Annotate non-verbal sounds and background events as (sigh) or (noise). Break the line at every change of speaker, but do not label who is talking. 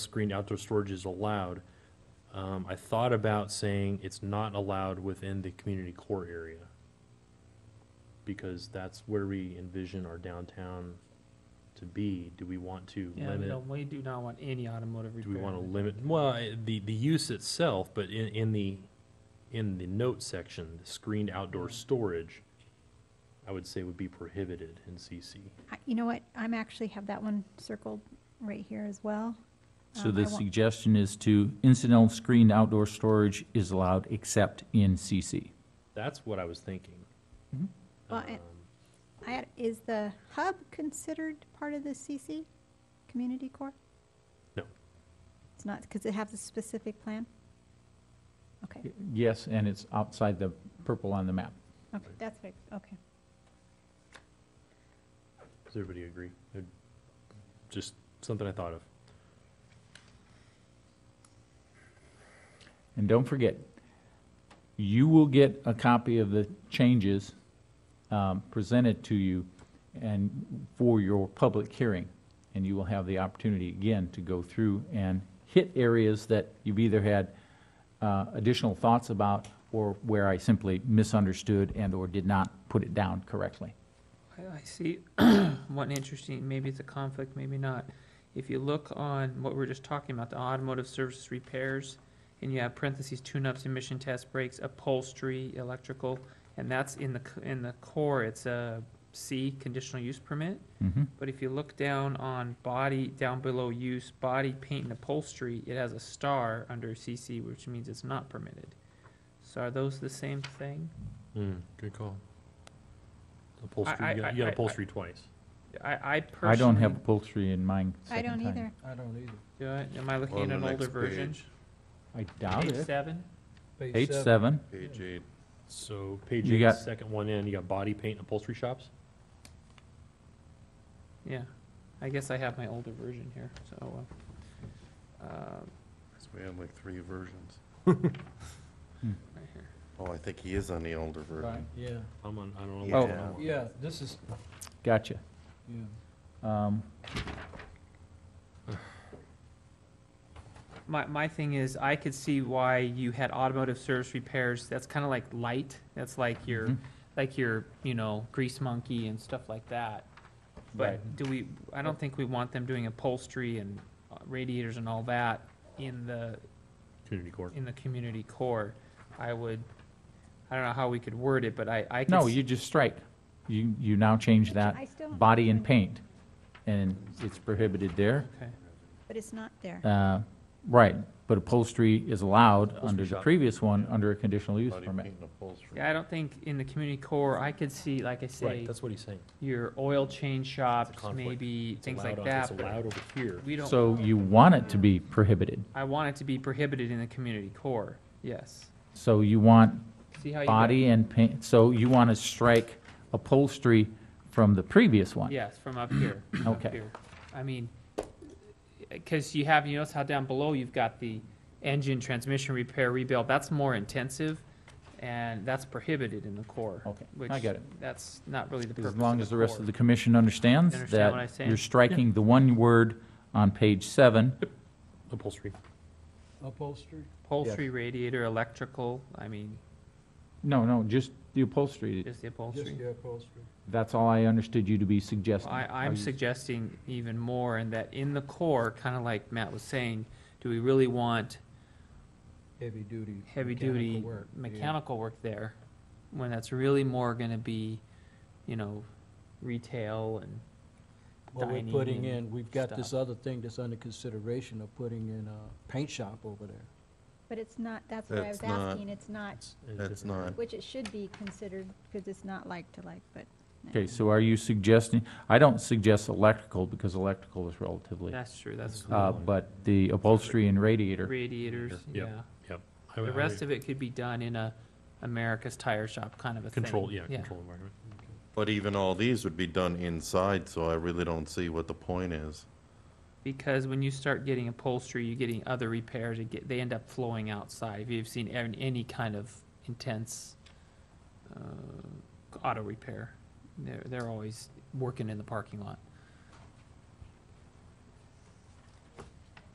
screened outdoor storage is allowed. Um, I thought about saying it's not allowed within the community core area. Because that's where we envision our downtown to be. Do we want to
Yeah,
limit?
no, we do not want any automotive
Do
repair.
we want to limit, well, I- the, the use itself, but in, in the, in the note section, the screened outdoor storage, I would say would be prohibited in CC.
I- You know what, I'm actually have that one circled right here as well.
So
Um, I
the
want-
suggestion is to incidental screened outdoor storage is allowed except in CC.
That's what I was thinking.
Mm-hmm.
Well, and-
Um,
I had- Is the hub considered part of the CC, community core?
No.
It's not, because it has a specific plan? Okay,
Yes, and it's outside the purple on the map.
okay, that's right, okay.
Does everybody agree? It- Just something I thought of.
And don't forget, you will get a copy of the changes um, presented to you and for your public hearing. And you will have the opportunity again to go through and hit areas that you've either had uh, additional thoughts about or where I simply misunderstood and/or did not put it down correctly.
I, I see (clears throat) one interesting, maybe it's a conflict, maybe not. If you look on what we we're just talking about, the automotive services repairs, and you have parentheses, tune-ups, emission test brakes, upholstery, electrical, and that's in the, c- in the core, it's a C, conditional use permit.
Mhm.
But if you look down on body, down below use, body paint and upholstery, it has a star under CC, which means it's not permitted. So are those the same thing?
good call.
I-
Upholstery, you
I-
got- you
I-
got
I-
upholstery twice.
I, I personally.
I don't have upholstery in mine.
I don't
second time.
either.
I don't either.
Do I- Am I looking at an older version?
I doubt
Page
it.
seven?
Page seven,
Page eight.
So page
You
eight,
got-
second one in, you got body paint and upholstery shops?
Yeah, I guess I have my older version here, so, uh, um,
So we have like three versions.
right here.
Oh, I think he is on the older version.
Yeah,
I'm on, I don't know.
Oh.
what I'm on.
yeah, this is,
gotcha.
yeah.
Um,
My, my thing is, I could see why you had automotive service repairs, that's kinda like light, that's like your,
Mhm.
like your, you know, grease monkey and stuff like that. But do we, I don't think we want them doing upholstery and uh, radiators and all that in the,
Community court.
in the community core. I would, I don't know how we could word it, but I, I could.
No,
s-
you just strike. You, you now change
I
that,
still don't
body and
understand,
paint, and it's prohibited there.
Okay.
But it's not there.
Uh, Right, but upholstery is allowed under
Upholstery
the
shop.
previous one, under a conditional use
Body
permit.
paint and upholstery.
Yeah, I don't think in the community core, I could see, like I
Right,
say,
that's what he's saying.
your oil change shops,
conflict.
maybe,
It's
things
allowed
like
on- It's
that, but
allowed over here.
we don't,
So you want it to be prohibited.
I want it to be prohibited in the community core, yes.
So you want
See how you. got-
body and paint, so you want to strike upholstery from the previous one?
Yes, from up here. up
Okay.
here. I mean, because you have, you notice how down below you've got the engine, transmission repair, rebuild, that's more intensive, and that's prohibited in the core.
Okay, I
which
get it.
That's not really the purpose
As
of
long as the rest
core.
of the commission understands
You understand what I'm
that
saying?
you're striking the one word on page seven,
Upholstery.
Upholstery?
Upholstery, radiator, electrical, I mean,
no, no, just the upholstery,
just the
Just
upholstery.
the upholstery.
That's all I understood you to be
Well,
suggesting.
I,
Are
I'm
you-
suggesting even more in that in the core, kind of like Matt was saying, do we really want
Heavy duty.
heavy
mechanical
duty
work, yeah.
mechanical work there when that's really more going to be, you know, retail and
Well, we're
dining
putting
and
in, we've got this
stuff.
other thing that's under consideration of putting in a paint shop over there.
But it's not, that's what I was
That's not-
asking, it's not,
That's not,
which it should be considered, because it's not like to like, but.
Okay, so are you suggesting, I don't suggest electrical because electrical is relatively,
That's true. That's
That's
uh,
cool.
but the upholstery and radiator,
radiators.
Yep.
Yeah.
I- I-
The rest of it could be done in a America's Tire Shop kind of a
Control,
thing.
yeah, control environment.
but even all these would be done inside, so I really don't see what the point is.
Because when you start getting upholstery, you're getting other repairs. It get, they end up flowing outside. If you've seen any, any kind of intense uh, auto repair, they're they're always working in the parking lot.